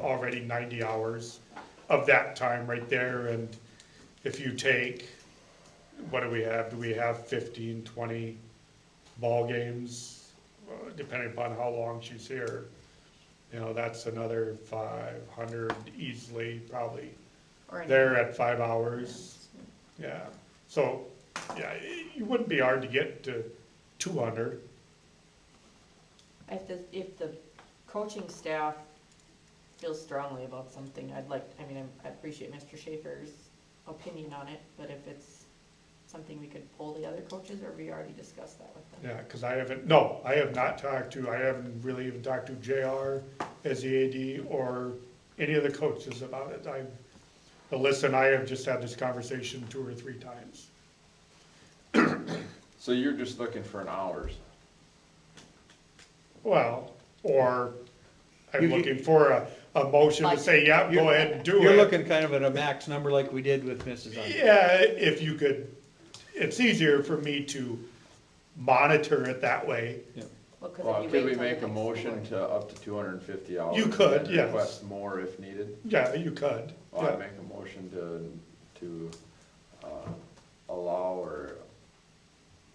already ninety hours of that time right there, and if you take, what do we have, do we have 15, 20 ball games? Uh, Depending upon how long she's here, you know, that's another five hundred easily, probably, Or an- there at five hours. Yeah, so, yeah, it it wouldn't be hard to get to two hundred. If the, if the coaching staff feels strongly about something, I'd like, I mean, I'm- I appreciate Mr. Schaefer's opinion on it, but if it's something we could poll the other coaches, or we already discussed that with them? Yeah, because I haven't, no, I have not talked to, I haven't really even talked to JR as the AD E or any of the coaches about it. I've, Alyssa and I have just had this conversation two or three times. So you're just looking for an hours? Well, or I'm You- you- looking for a, a motion to say, yeah, go You're- ahead and do it. You're looking kind of at a max number like we did with Mrs. Under. Yeah, if you could, it's easier for me to monitor it that way. Well, 'cause if Well, you could wait we till the make a next motion to up to two hundred and fifty hours? You could, and then yes. Request more if needed? Yeah, you could. Well, Yeah. I'd make a motion to, to, uh, allow or,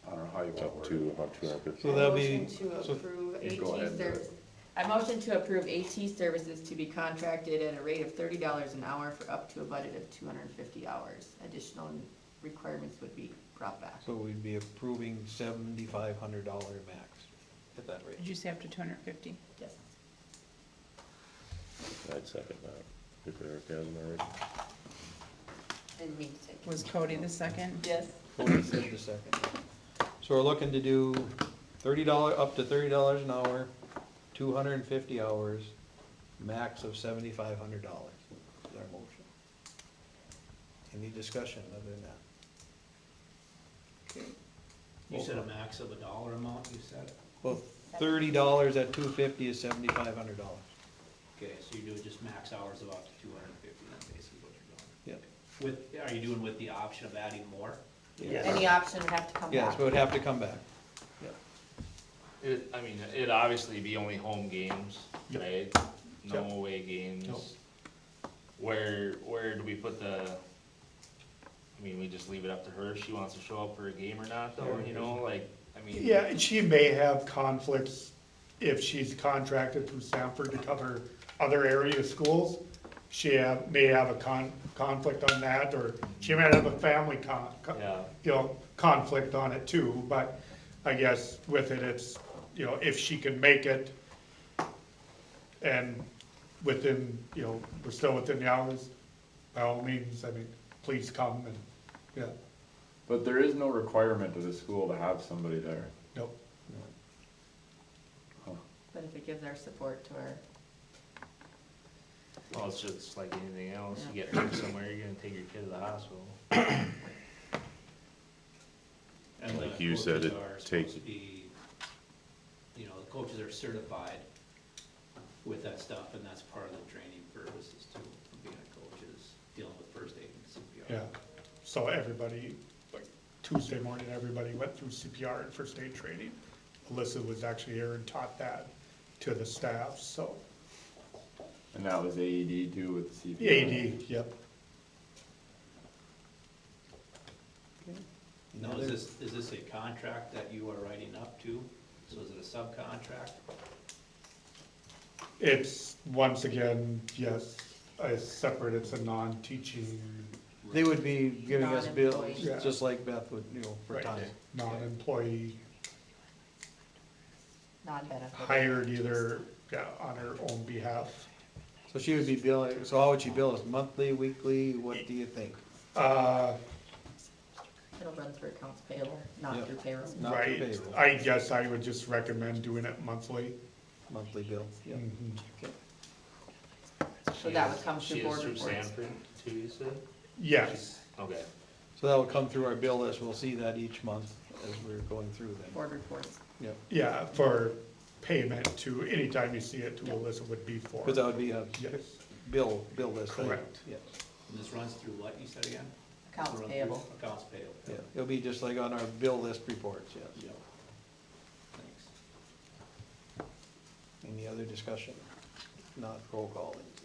I don't know how you want to Up word it. to about two hundred fifty. So that'll be, Motion to so- approve You go ahead AT and do it. service. I motion to approve AT services to be contracted at a rate of thirty dollars an hour for up to a budget of two hundred and fifty hours. Additional requirements would be brought back. so we'd be approving seventy-five hundred dollar max at that rate. Did you say up to two hundred and fifty? Yes. I'd second uh, that, if Eric hasn't already. Didn't mean to take. Was Cody the second? Yes. Cody said the second. So we're looking to do thirty dollar, up to thirty dollars an hour, two hundred and fifty hours, max of seventy-five hundred dollars is our motion. Any discussion other than that? You said a max of a dollar amount, you said? Well, thirty dollars at two fifty is seventy-five hundred dollars. Okay, so you're doing just max hours of up to two hundred and fifty, that's basically what you're Yep. doing. With, are you doing with the option of adding more? Any option would have to come Yes, back. we would have to come back. Yep. It, I mean, it'd obviously be only home games, Yep. right? No Yep. away Nope. games. Where, where do we put the, I mean, we just leave it up to her, if she wants to show up for a game or not, though, you know, like, I mean. Yeah, and she may have conflicts if she's contracted through Sanford to cover other area schools. She have, may have a con, conflict on that, or she might have a family con, co- Yeah, you know, conflict on it too, but I guess with it, it's, you know, if she can make it and within, you know, we're still within the hours, by all means, I mean, please come and, yeah, But there is no requirement of the school to have somebody there. nope. But if it gives our support to our, well, it's just like anything else, you get hurt somewhere, you're gonna take your kid to the hospital. And the Like you said, Uh, coaches it are supposed takes- to be, you know, the coaches are certified with that stuff, and that's part of the training purposes too, from being a coach is dealing with first aid and CPR. Yeah, so everybody, like Tuesday morning, everybody went through CPR and first aid training. Alyssa was actually here and taught that to the staff, so. And that was AED too with the The CPR. AD, yep, Now, Another- is this, is this a contract that you are writing up to? So is it a subcontract? it's, once again, yes, it's separate, it's a non-teaching, They would be giving us bills, Non-employee. just like Beth would, you know, for Right. time. non-employee, non-benefit. hired either, yeah, on her own behalf. So she would be billing, so how would she bill us, monthly, weekly, what do you think? Uh, It'll run through accounts payable, not Yep. through payroll. Not for right, payroll, I guess I would just recommend doing it monthly. monthly bill, yeah. Mhm. So She that is- would come through she is board through reports. Sanford, too, you said? Yes, Okay, So that will come through our bill list, we'll see that each month as we're going through them. Board reports. Yep, yeah, for payment to, anytime you see it to Alyssa would be for. because that would be a Yes, bill, bill list. item. Correct. Yes, And this runs through what, you said again? Accounts Run through payable. Accounts payable. yeah, it'll be just like on our bill list reports, yes. Yeah. Thanks. Any other discussion? Not roll call, then.